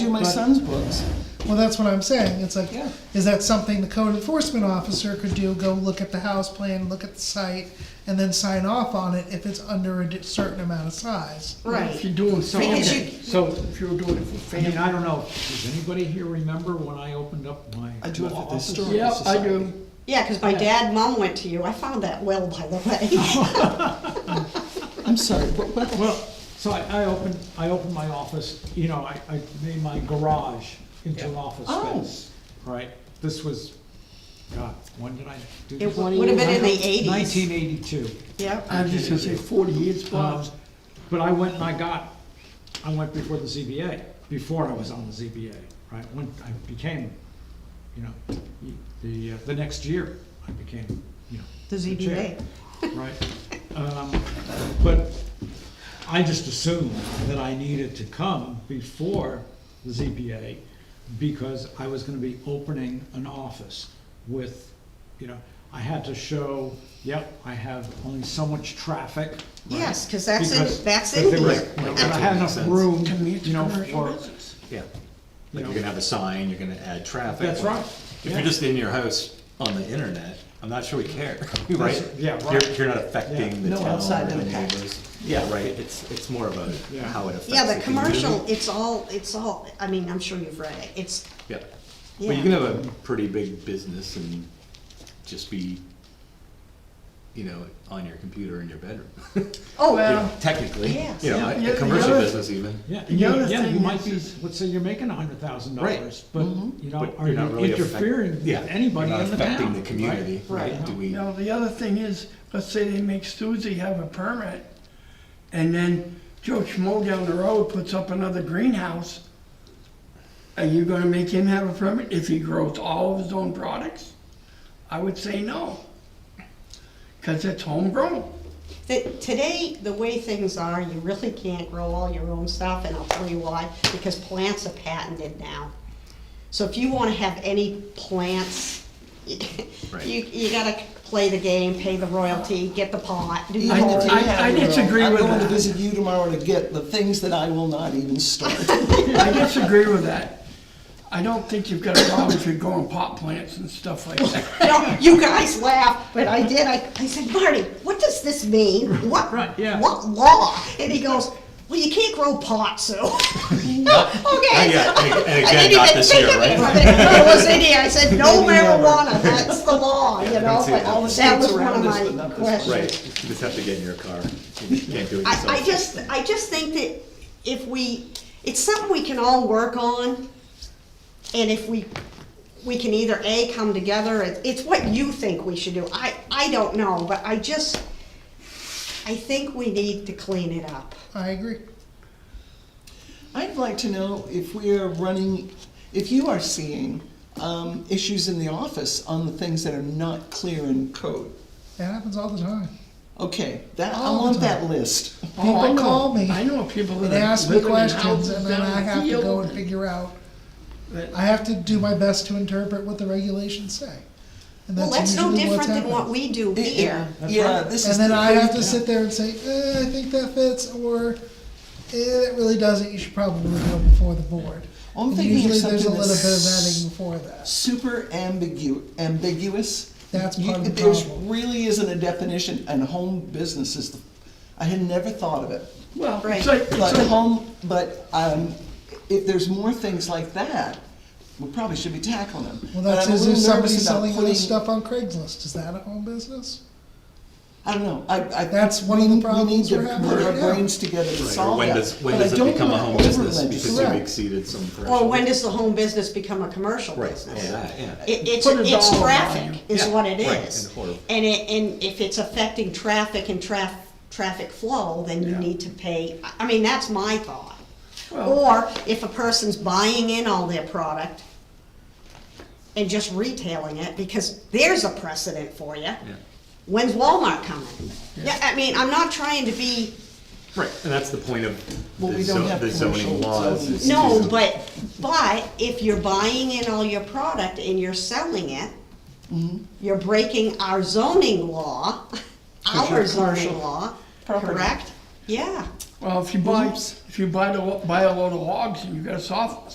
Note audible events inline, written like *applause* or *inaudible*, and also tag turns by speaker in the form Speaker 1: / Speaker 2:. Speaker 1: in my
Speaker 2: But-
Speaker 1: son's books.
Speaker 3: Well, that's what I'm saying. It's like,
Speaker 1: Yeah.
Speaker 3: is that something the code enforcement officer could do? Go look at the house plan, look at the site, and then sign off on it if it's under a di- certain amount of size.
Speaker 2: If
Speaker 4: Right.
Speaker 2: you're doing something,
Speaker 4: Because you-
Speaker 2: so,
Speaker 1: If you were doing it for
Speaker 2: I mean, I don't know, does anybody here remember when I opened up my
Speaker 5: I do it at the
Speaker 2: law office?
Speaker 5: historical
Speaker 2: Yep, I
Speaker 5: society.
Speaker 3: um,
Speaker 2: do.
Speaker 4: Yeah, because my
Speaker 2: Yeah.
Speaker 4: dad and mom went to you. I found that well, by the way.
Speaker 5: I'm sorry, what, what?
Speaker 2: Well, so I, I opened, I opened my office, you know, I, I made my garage into an office
Speaker 5: Oh.
Speaker 2: space, right? This was, God, when did I do
Speaker 4: It
Speaker 2: this?
Speaker 4: would have been in the eighties.
Speaker 2: Nineteen eighty-two.
Speaker 4: *laughs* Yep.
Speaker 3: Uh,
Speaker 5: I'm just gonna say forty years, Bob.
Speaker 2: Um, But I went and I got, I went before the ZBA, before I was on the ZBA, right? When I became, you know, the, uh, the next year, I became, you know.
Speaker 4: The
Speaker 2: chair,
Speaker 4: ZBA.
Speaker 2: Right? Um, But I just assumed that I needed to come before the ZBA because I was gonna be opening an office with, you know, I had to show, yep, I have only so much traffic. right?
Speaker 4: Yes, 'cause that's in-
Speaker 2: Because-
Speaker 4: that's in
Speaker 2: because there was-
Speaker 4: here.
Speaker 2: you know, I had enough room, you know, for, you
Speaker 6: Yeah, like
Speaker 2: know,
Speaker 6: you're gonna have a sign, you're gonna add traffic.
Speaker 2: That's right.
Speaker 6: If you're just in your house on the internet, I'm not sure we care, *laughs* right?
Speaker 2: yeah,
Speaker 6: You're,
Speaker 2: right.
Speaker 6: you're not
Speaker 2: Yeah.
Speaker 6: affecting the
Speaker 5: No
Speaker 6: town
Speaker 5: outside
Speaker 6: or the
Speaker 5: impact.
Speaker 6: neighbors. Yeah, right, it's, it's more of a,
Speaker 2: Yeah.
Speaker 6: how it affects.
Speaker 4: Yeah, the
Speaker 6: community.
Speaker 4: commercial, it's all, it's all, I mean, I'm sure you've read it. It's,
Speaker 6: Yeah,
Speaker 4: yeah.
Speaker 6: well, you can have a pretty big business and just be, you know, on your computer in your bedroom. *laughs* You
Speaker 3: Um,
Speaker 4: Oh,
Speaker 6: know,
Speaker 4: well,
Speaker 6: Technically,
Speaker 4: Yes.
Speaker 6: you know,
Speaker 5: Yeah,
Speaker 6: a
Speaker 5: yeah,
Speaker 6: a commercial
Speaker 5: yeah.
Speaker 6: business even.
Speaker 2: Yeah,
Speaker 5: The
Speaker 2: yeah,
Speaker 5: other
Speaker 2: yeah, you
Speaker 5: thing
Speaker 2: might be,
Speaker 5: is-
Speaker 2: let's say you're making a hundred thousand dollars,
Speaker 6: Right.
Speaker 2: but, you know,
Speaker 6: But
Speaker 2: are
Speaker 6: you're not
Speaker 2: you
Speaker 6: really affect-
Speaker 2: interfering with
Speaker 6: yeah,
Speaker 2: anybody
Speaker 6: you're not
Speaker 2: in the town?
Speaker 6: Affecting the
Speaker 2: right?
Speaker 6: community, right? Do we,
Speaker 5: Now, the other thing is, let's say they make Stuzy have a permit, and then Joe Schmo down the road puts up another greenhouse. Are you gonna make him have a permit if he grows all of his own products? I would say no. Cause it's homegrown.
Speaker 4: th- today, the way things are, you really can't grow all your own stuff, and I'll tell you why, because plants are patented now. So if you wanna have any plants, *laughs* you,
Speaker 6: Right.
Speaker 4: you gotta play the game, pay the royalty, get the pot, do the
Speaker 5: I-
Speaker 4: whole
Speaker 5: I- disagree with
Speaker 3: uh, I'm going to
Speaker 5: that.
Speaker 3: visit you tomorrow to get the things that I will not even start. *laughs*
Speaker 5: I disagree with that. I don't think you've got a problem if you're growing pot plants and stuff like that.
Speaker 3: *laughs*
Speaker 4: You know, you guys laugh, but I did, I, I said, Marty, what does this mean? What,
Speaker 2: Right, yeah.
Speaker 4: what law? And he goes, well, you can't grow pot, so.
Speaker 6: not
Speaker 4: Okay.
Speaker 6: yet, Oh, and ag- and
Speaker 4: I
Speaker 6: again,
Speaker 4: didn't
Speaker 6: not
Speaker 4: even
Speaker 6: this
Speaker 4: think
Speaker 6: year,
Speaker 4: of it,
Speaker 6: right?
Speaker 4: but it was in here, I said,
Speaker 3: *laughs*
Speaker 4: no marijuana, that's the law, you know, but that was one of
Speaker 3: around us, but
Speaker 4: my
Speaker 3: not this one.
Speaker 4: questions.
Speaker 6: Right, you just have to get in your car, you can't do it yourself.
Speaker 4: I, I just, I just think that if we, it's something we can all work on, and if we, we can either A, come together, it- it's what you think we should do, I, I don't know, but I just, I think we need to clean it up.
Speaker 3: I agree. I'd like to know if we are running, if you are seeing um, issues in the office on the things that are not clear in code.
Speaker 1: That happens all the time.
Speaker 3: Okay, that, I
Speaker 1: All the
Speaker 3: want that
Speaker 1: time.
Speaker 3: list.
Speaker 5: Oh, I
Speaker 1: People
Speaker 5: know.
Speaker 1: call me
Speaker 5: I know people that
Speaker 3: It
Speaker 5: are
Speaker 3: asks me
Speaker 5: living in
Speaker 3: questions
Speaker 5: houses
Speaker 3: and then
Speaker 5: down
Speaker 3: I
Speaker 5: the
Speaker 3: have to go
Speaker 5: field
Speaker 3: and figure out,
Speaker 5: that-
Speaker 3: I have to do my best to interpret what the regulations say. And
Speaker 4: Well, that's no
Speaker 3: usually what's
Speaker 4: different than what
Speaker 3: happening.
Speaker 4: we do
Speaker 3: It- it-
Speaker 4: here.
Speaker 3: Yeah, this is.
Speaker 1: And then
Speaker 3: the
Speaker 1: I have
Speaker 3: thing.
Speaker 1: to sit there and say, eh, I think that fits, or eh, that really doesn't, you should probably go before the board.
Speaker 3: Well, I'm
Speaker 1: And
Speaker 3: thinking of
Speaker 1: Usually there's a
Speaker 3: something
Speaker 1: little bit of
Speaker 3: that's-
Speaker 1: vetting before that.
Speaker 3: Super ambigu, ambiguous.
Speaker 1: That's
Speaker 3: You-
Speaker 1: part of the
Speaker 3: There's
Speaker 1: problem.
Speaker 3: really isn't a definition and home business is the, I had never thought of it.
Speaker 5: Well,
Speaker 4: Right.
Speaker 5: it's like, it's
Speaker 3: But
Speaker 5: like-
Speaker 3: home, but, um, if there's more things like that, we probably should be tackling them.
Speaker 1: Well,
Speaker 3: But
Speaker 1: that's,
Speaker 3: I'm a
Speaker 1: is there
Speaker 3: little
Speaker 1: somebody
Speaker 3: nervous about
Speaker 1: selling
Speaker 3: putting-
Speaker 1: this stuff on Craigslist? Is that a home business?
Speaker 3: I don't know, I, I.
Speaker 1: That's one of
Speaker 3: we-
Speaker 1: the
Speaker 3: We need
Speaker 1: problems
Speaker 3: to
Speaker 1: we're having
Speaker 3: put our
Speaker 1: right now.
Speaker 3: brains together to
Speaker 6: Right, or
Speaker 3: solve
Speaker 6: When
Speaker 3: that.
Speaker 6: does, when
Speaker 3: But I
Speaker 6: does it
Speaker 3: don't
Speaker 6: become a
Speaker 3: wanna
Speaker 6: home business
Speaker 3: over-legislate.
Speaker 6: because you've
Speaker 1: Correct.
Speaker 6: exceeded some threshold?
Speaker 4: Or when does the home business become a commercial
Speaker 6: Right,
Speaker 4: business?
Speaker 6: all that, yeah.
Speaker 4: It, it's,
Speaker 5: Put a
Speaker 4: it's
Speaker 5: dollar
Speaker 4: traffic
Speaker 5: value.
Speaker 4: is
Speaker 6: Yeah,
Speaker 4: what it
Speaker 6: right,
Speaker 4: is.
Speaker 6: and or-
Speaker 4: And it, and if it's affecting traffic and traf, traffic flow, then you need to pay, I- I mean, that's my thought.
Speaker 5: Well-
Speaker 4: Or if a person's buying in all their product and just retailing it, because there's a precedent for you. When's Walmart coming? Yeah, I mean, I'm not trying to be,
Speaker 6: Right, and that's the point of
Speaker 3: Well,
Speaker 6: the
Speaker 3: we don't
Speaker 6: zo-
Speaker 3: have
Speaker 6: the zoning
Speaker 3: commercial
Speaker 6: laws.
Speaker 3: zoning.
Speaker 6: is
Speaker 4: no,
Speaker 6: to-
Speaker 4: but, but if you're buying in all your product and you're selling it,
Speaker 3: Mm-hmm.
Speaker 4: you're breaking our zoning law, our
Speaker 3: you're
Speaker 4: zoning
Speaker 3: commercial
Speaker 4: law,
Speaker 3: property.
Speaker 4: correct? Yeah.
Speaker 5: Well, if you buy, if you buy the, buy a load of logs and you got a soft,